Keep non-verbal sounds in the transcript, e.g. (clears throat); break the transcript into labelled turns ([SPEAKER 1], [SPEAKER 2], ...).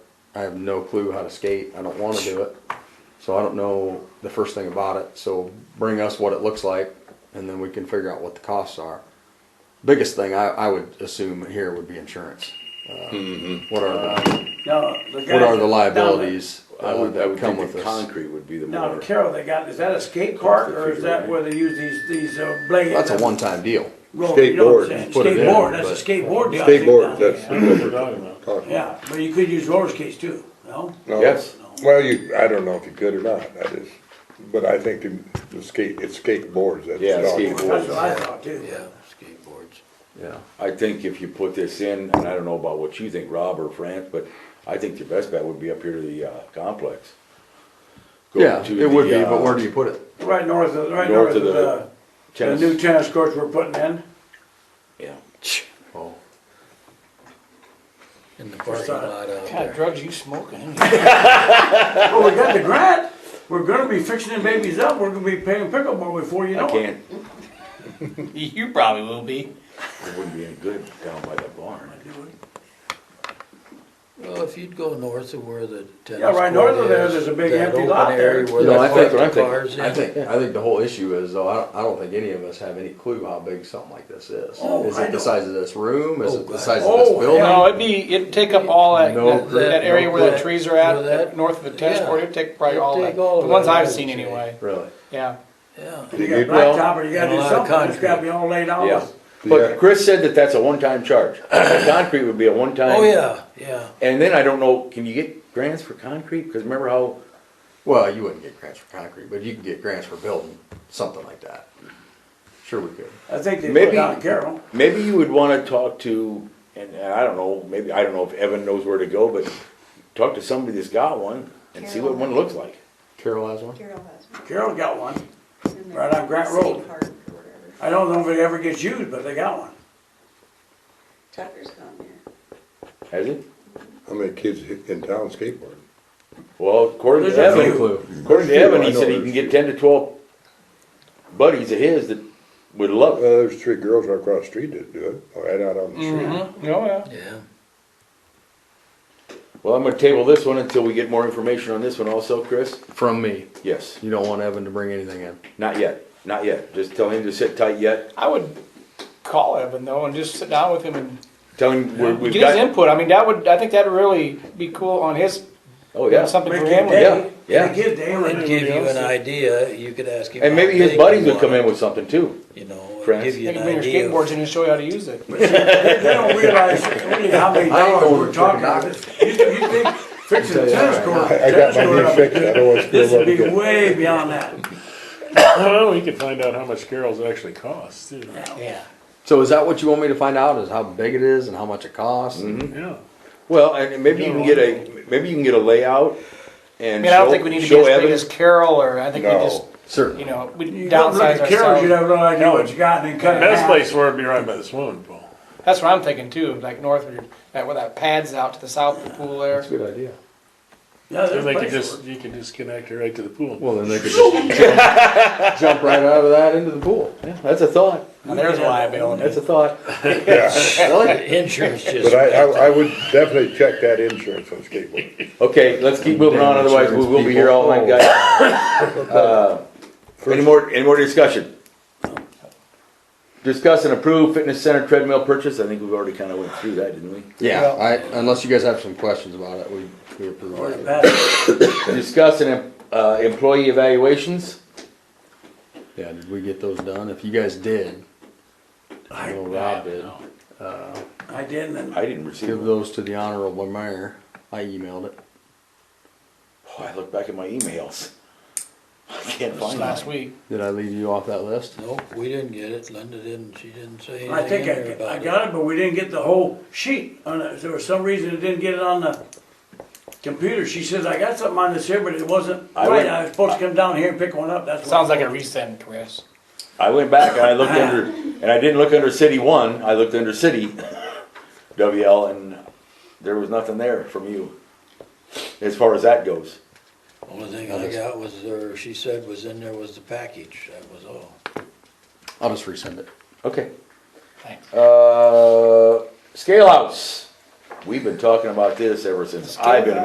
[SPEAKER 1] I have no clue how to skate. I don't want to do it. So I don't know the first thing about it. So bring us what it looks like and then we can figure out what the costs are. Biggest thing I, I would assume here would be insurance. Uh,
[SPEAKER 2] Mm-hmm.
[SPEAKER 1] What are
[SPEAKER 3] Uh,
[SPEAKER 1] the,
[SPEAKER 3] No, the guy.
[SPEAKER 1] what are the liabilities
[SPEAKER 2] I
[SPEAKER 1] uh,
[SPEAKER 2] would, I
[SPEAKER 1] that
[SPEAKER 2] would
[SPEAKER 1] come
[SPEAKER 2] think
[SPEAKER 1] with
[SPEAKER 2] the
[SPEAKER 1] this?
[SPEAKER 2] concrete would be the
[SPEAKER 3] Now,
[SPEAKER 2] more,
[SPEAKER 3] Carol, they got, is that a skate park or is that where they use these, these uh, blades?
[SPEAKER 1] That's a one-time deal.
[SPEAKER 3] Well, you know what I'm
[SPEAKER 4] Skateboard,
[SPEAKER 3] saying,
[SPEAKER 4] you
[SPEAKER 1] put it in,
[SPEAKER 3] Skateboard, that's
[SPEAKER 1] but-
[SPEAKER 3] a skateboard deal. I think,
[SPEAKER 4] Skateboard,
[SPEAKER 3] down
[SPEAKER 4] that's
[SPEAKER 3] there.
[SPEAKER 4] what
[SPEAKER 5] What
[SPEAKER 4] we're
[SPEAKER 5] you talking about?
[SPEAKER 4] talking about.
[SPEAKER 3] Yeah, but you could use roller skates too, no?
[SPEAKER 4] No.
[SPEAKER 2] Yes.
[SPEAKER 4] Well, you, I don't know if you could or not, that is, but I think the- the skate, it's skateboards, that's.
[SPEAKER 2] Yeah,
[SPEAKER 4] what I'm-
[SPEAKER 2] skateboard.
[SPEAKER 3] That's what I thought too.
[SPEAKER 6] skateboards.
[SPEAKER 1] Yeah.
[SPEAKER 2] I think if you put this in, and I don't know about what you think, Rob or France, but I think your best bet would be up here to the, uh, complex. Go
[SPEAKER 1] Yeah,
[SPEAKER 2] to
[SPEAKER 1] it would
[SPEAKER 2] the,
[SPEAKER 1] be, but
[SPEAKER 2] uh,
[SPEAKER 1] where do you put it?
[SPEAKER 3] Right north of, right
[SPEAKER 2] North
[SPEAKER 3] north
[SPEAKER 2] of
[SPEAKER 3] of
[SPEAKER 2] the
[SPEAKER 3] the, the
[SPEAKER 2] tennis-
[SPEAKER 3] new tennis courts we're putting in.
[SPEAKER 2] Yeah.
[SPEAKER 1] Oh.
[SPEAKER 6] In the parking
[SPEAKER 3] Sorry.
[SPEAKER 6] lot out
[SPEAKER 7] God,
[SPEAKER 6] there.
[SPEAKER 7] drugs you smoking?
[SPEAKER 3] Well, we got the grant, we're gonna be fixing the babies up, we're gonna be paying pickleball before you know
[SPEAKER 2] I
[SPEAKER 3] it.
[SPEAKER 2] can't,
[SPEAKER 7] (laughs) You probably will be.
[SPEAKER 2] it wouldn't be any good down by that barn.
[SPEAKER 6] Well, if you'd go north of where the tennis court is.
[SPEAKER 3] Yeah, right north of there, there's a big
[SPEAKER 6] that
[SPEAKER 3] empty
[SPEAKER 6] open
[SPEAKER 3] lot there.
[SPEAKER 6] area Where
[SPEAKER 1] No, I
[SPEAKER 6] they
[SPEAKER 1] think-
[SPEAKER 6] park the
[SPEAKER 2] I think-
[SPEAKER 6] cars in.
[SPEAKER 1] I think, I think the whole issue is though, I don't, I don't think any of us have any clue how big something like this is.
[SPEAKER 3] Oh,
[SPEAKER 1] Is it
[SPEAKER 3] I know.
[SPEAKER 1] the size of this room? Is
[SPEAKER 6] Oh,
[SPEAKER 1] it the
[SPEAKER 6] God.
[SPEAKER 1] size of this
[SPEAKER 3] Oh,
[SPEAKER 1] building?
[SPEAKER 7] No, it'd be, it'd take up all that,
[SPEAKER 1] No
[SPEAKER 7] that-
[SPEAKER 1] grit,
[SPEAKER 7] that area
[SPEAKER 6] no
[SPEAKER 7] where the
[SPEAKER 6] grit.
[SPEAKER 7] trees are
[SPEAKER 6] Where
[SPEAKER 7] at,
[SPEAKER 6] that-
[SPEAKER 7] that north of the tennis
[SPEAKER 6] yeah.
[SPEAKER 7] court, it'd take probably
[SPEAKER 6] It'd
[SPEAKER 7] all
[SPEAKER 6] take
[SPEAKER 7] that. The
[SPEAKER 6] all of
[SPEAKER 7] ones
[SPEAKER 6] that,
[SPEAKER 7] I've
[SPEAKER 6] I
[SPEAKER 7] seen
[SPEAKER 6] would say.
[SPEAKER 7] anyway,
[SPEAKER 1] Really?
[SPEAKER 7] yeah.
[SPEAKER 6] Yeah,
[SPEAKER 3] You
[SPEAKER 4] Dig
[SPEAKER 3] got
[SPEAKER 4] it well,
[SPEAKER 3] blacktop or you
[SPEAKER 6] and a
[SPEAKER 3] gotta do
[SPEAKER 6] lot of
[SPEAKER 3] something, it's gotta
[SPEAKER 6] concrete.
[SPEAKER 3] be all laid
[SPEAKER 1] Oh.
[SPEAKER 2] Yeah,
[SPEAKER 3] out.
[SPEAKER 4] Yeah.
[SPEAKER 2] but Chris said that that's a
[SPEAKER 1] (clears throat)
[SPEAKER 2] one-time charge. The Concrete would be a one-time.
[SPEAKER 6] oh, yeah, yeah.
[SPEAKER 2] And then I don't know, can you get grants for concrete? Because remember how,
[SPEAKER 1] Well, you wouldn't get grants for concrete, but you can get grants for building something like that. Sure we could.
[SPEAKER 3] I think they put
[SPEAKER 2] Maybe-
[SPEAKER 3] it on Carroll.
[SPEAKER 2] maybe you would want to talk to, and and I don't know, maybe, I don't know if Evan knows where to go, but talk to somebody that's got one and see what one looks like.
[SPEAKER 1] Carol has one?
[SPEAKER 8] Carol has one.
[SPEAKER 3] Carroll got one.
[SPEAKER 8] It's in the
[SPEAKER 3] Right on Grant
[SPEAKER 8] skate
[SPEAKER 3] Road.
[SPEAKER 8] park or whatever.
[SPEAKER 3] I don't know if it ever gets used, but they got one.
[SPEAKER 8] Tucker's gone there.
[SPEAKER 2] Has it?
[SPEAKER 4] How many kids hit- in town skateboard?
[SPEAKER 2] Well, according to
[SPEAKER 3] There's a few.
[SPEAKER 2] Evan,
[SPEAKER 1] clue.
[SPEAKER 2] according to Evan, he
[SPEAKER 4] I know
[SPEAKER 2] said he
[SPEAKER 4] there's
[SPEAKER 2] can get
[SPEAKER 4] few.
[SPEAKER 2] ten to twelve buddies of his that would
[SPEAKER 4] Well,
[SPEAKER 2] love it.
[SPEAKER 4] there's three girls right across the street that do it, oh, right out on the street.
[SPEAKER 7] Mm-hmm, oh, yeah.
[SPEAKER 6] Yeah.
[SPEAKER 2] Well, I'm gonna table this one until we get more information on this one also, Chris.
[SPEAKER 1] From me.
[SPEAKER 2] Yes,
[SPEAKER 1] You don't want Evan to bring anything in.
[SPEAKER 2] not yet, not yet. Just tell him to sit tight yet.
[SPEAKER 7] I would call Evan though and just sit down with him and
[SPEAKER 2] Tell him we're- we've
[SPEAKER 7] get his
[SPEAKER 2] got.
[SPEAKER 7] input. I mean, that would, I think that'd really be cool on his,
[SPEAKER 2] Oh, yeah.
[SPEAKER 7] something
[SPEAKER 3] Make
[SPEAKER 7] for
[SPEAKER 3] it
[SPEAKER 7] him.
[SPEAKER 3] day.
[SPEAKER 2] Yeah, yeah.
[SPEAKER 3] Make it day.
[SPEAKER 6] It'd give you an idea, you could ask him.
[SPEAKER 2] And maybe
[SPEAKER 6] how
[SPEAKER 2] his
[SPEAKER 6] big
[SPEAKER 2] buddies
[SPEAKER 6] you
[SPEAKER 2] would come
[SPEAKER 6] want
[SPEAKER 2] in with something too.
[SPEAKER 6] it, You know, it'd
[SPEAKER 2] friends.
[SPEAKER 6] give you
[SPEAKER 7] They
[SPEAKER 6] an
[SPEAKER 7] can bring your
[SPEAKER 6] idea. of-
[SPEAKER 7] skateboards in and show you how to use it.
[SPEAKER 3] They don't realize really how many
[SPEAKER 1] I ain't
[SPEAKER 3] dollars
[SPEAKER 1] going
[SPEAKER 3] we're
[SPEAKER 1] to
[SPEAKER 3] talking about.
[SPEAKER 1] Chicago.
[SPEAKER 3] You you think fixing the tennis court,
[SPEAKER 4] I, I got
[SPEAKER 3] tennis
[SPEAKER 4] my
[SPEAKER 3] court
[SPEAKER 4] knee
[SPEAKER 3] (laughs) up,
[SPEAKER 4] fixed, I don't (laughs) want to screw
[SPEAKER 3] this
[SPEAKER 4] them
[SPEAKER 3] would
[SPEAKER 4] up
[SPEAKER 3] be
[SPEAKER 4] again.
[SPEAKER 3] way beyond that.
[SPEAKER 5] I don't know, you could find out how much Carol's actually costs, too.
[SPEAKER 7] Yeah.
[SPEAKER 1] So is that what you want me to find out? Is how big it is and how much it costs?
[SPEAKER 5] Yeah.
[SPEAKER 2] Well, and maybe you can get a, maybe you can get a layout
[SPEAKER 7] I
[SPEAKER 2] and
[SPEAKER 7] mean, I don't
[SPEAKER 2] show,
[SPEAKER 7] think we need to be
[SPEAKER 2] show
[SPEAKER 7] as big as
[SPEAKER 2] Evan.
[SPEAKER 7] Carol or I think we
[SPEAKER 4] No.
[SPEAKER 7] just, you
[SPEAKER 1] Certainly.
[SPEAKER 7] know, we
[SPEAKER 3] You don't look
[SPEAKER 7] downsize
[SPEAKER 3] at Carroll's, you'd
[SPEAKER 7] ourselves.
[SPEAKER 3] have no idea what you got and then cut it
[SPEAKER 5] Best
[SPEAKER 3] down.
[SPEAKER 5] place for it'd be right by the swimming pool.
[SPEAKER 7] That's what I'm thinking too, like north of your, that, where that pad's out to the south of the pool there.
[SPEAKER 1] Good idea.
[SPEAKER 3] Yeah,
[SPEAKER 5] Then
[SPEAKER 3] there's
[SPEAKER 5] they could
[SPEAKER 3] places
[SPEAKER 5] just, you could just connect it right to the pool.
[SPEAKER 1] Well, then they could just (laughs) jump, jump right out of that into the pool.
[SPEAKER 2] Yeah, That's a thought,
[SPEAKER 7] Now, there's liability.
[SPEAKER 2] that's a thought.
[SPEAKER 4] Yeah,
[SPEAKER 7] (laughs)
[SPEAKER 6] Insurance just.
[SPEAKER 4] but I, I, I would definitely check that insurance on skateboard.
[SPEAKER 2] Okay, let's keep moving on, otherwise we will be here all night, guys. Uh, Any more, any more discussion? Discuss and approve fitness center treadmill purchase, I think we've already kinda went through that, didn't we?
[SPEAKER 1] Yeah, I, unless you guys have some questions about it, we, we approve
[SPEAKER 3] where
[SPEAKER 1] it.
[SPEAKER 3] that-
[SPEAKER 2] Discuss and, em- uh, employee evaluations,
[SPEAKER 1] Yeah, did we get those done? If you guys did, I know Rob did.
[SPEAKER 3] I didn't, and
[SPEAKER 2] I didn't receive
[SPEAKER 1] Give
[SPEAKER 2] them.
[SPEAKER 1] those to the honorable mayor. I emailed it.
[SPEAKER 2] Oh, I looked back at my emails. I can't
[SPEAKER 7] Just
[SPEAKER 2] find
[SPEAKER 7] last
[SPEAKER 2] that.
[SPEAKER 7] week.
[SPEAKER 1] Did I leave you off that list?
[SPEAKER 6] Nope, we didn't get it. Linda didn't, she didn't say
[SPEAKER 3] I
[SPEAKER 6] anything
[SPEAKER 3] think
[SPEAKER 6] in there
[SPEAKER 3] I, I
[SPEAKER 6] about it.
[SPEAKER 3] got it, but we didn't get the whole sheet on it. There was some reason it didn't get it on the computer. She says, I got something on this here, but it wasn't
[SPEAKER 2] I
[SPEAKER 3] right.
[SPEAKER 2] went-
[SPEAKER 3] I was supposed to come down here and pick one up, that's what.
[SPEAKER 7] Sounds like a resend, Chris.
[SPEAKER 2] I went back and I looked under, and I didn't look under city one, I looked under city, WL, and there was nothing there from you, as far as that goes.
[SPEAKER 6] Only thing I got was, or she said was in there was the package, that was all.
[SPEAKER 1] I'll just resend it.
[SPEAKER 2] Okay.
[SPEAKER 7] Thanks.
[SPEAKER 2] Uh, scale house. We've been talking about this ever since I've been